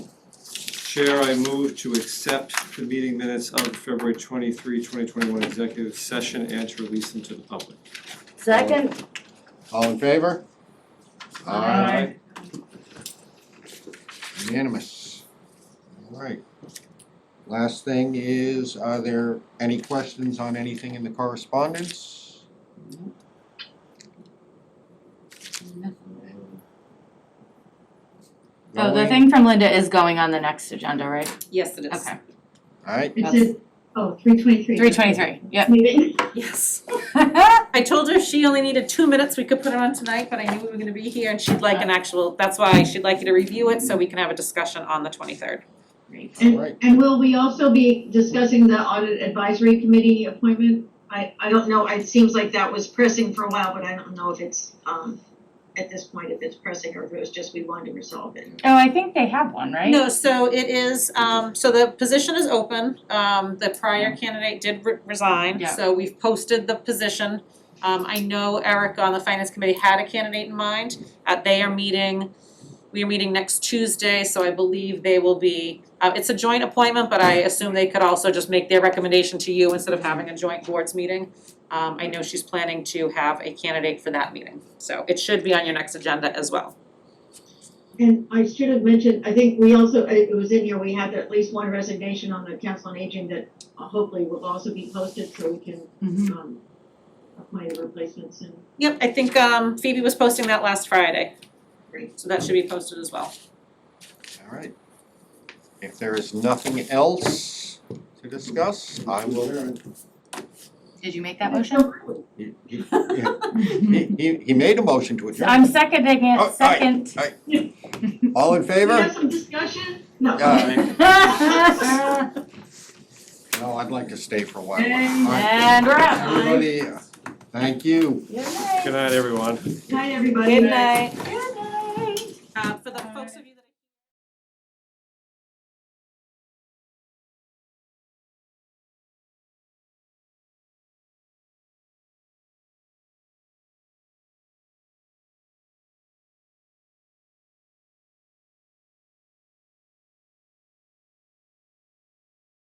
Chair, I move to accept the meeting minutes of February 23, 2021 executive session and to release them to the public. Second, All in favor? Aye. Unanimous. All right. Last thing is, are there any questions on anything in the correspondence? Oh, the thing from Linda is going on the next agenda, right? Yes, it is. Okay, All right, It says, oh, three twenty-three. three twenty-three, yep. Maybe, Yes. I told her she only needed two minutes, we could put it on tonight, but I knew we were gonna be here and she'd like an actual, that's why she'd like you to review it so we can have a discussion on the twenty-third. all right. and will we also be discussing the audit advisory committee appointment? I, I don't know, it seems like that was pressing for a while, but I don't know if it's, um, at this point, if it's pressing or if it was just we wanted to resolve it. Oh, I think they have one, right? No, so it is, um, so the position is open, um, the prior candidate did re- resign, Mm-hmm. Yeah. so we've posted the position. Um, I know Eric on the finance committee had a candidate in mind, uh, they are meeting, we are meeting next Tuesday, so I believe they will be, uh, it's a joint appointment, but I assume they could also just make their recommendation to you instead of having a joint boards meeting. Um, I know she's planning to have a candidate for that meeting, so it should be on your next agenda as well. And I should have mentioned, I think we also, it was in here, we had at least one resignation on the council on aging that hopefully will also be posted so we can, Mhm. um, appoint replacements and Yep, I think um Phoebe was posting that last Friday. Great. So that should be posted as well. All right. If there is nothing else to discuss, I will. Did you make that motion? He, he- he, he made a motion to I'm adjourn. seconding Oh, aye. it, second. All in We have favor? some discussion? No. Aye. And No, I'd like to stay for a while. All right. we're out. Everybody, uh, thank you. Good night, everyone. Night, everybody. night. Good night. Uh for the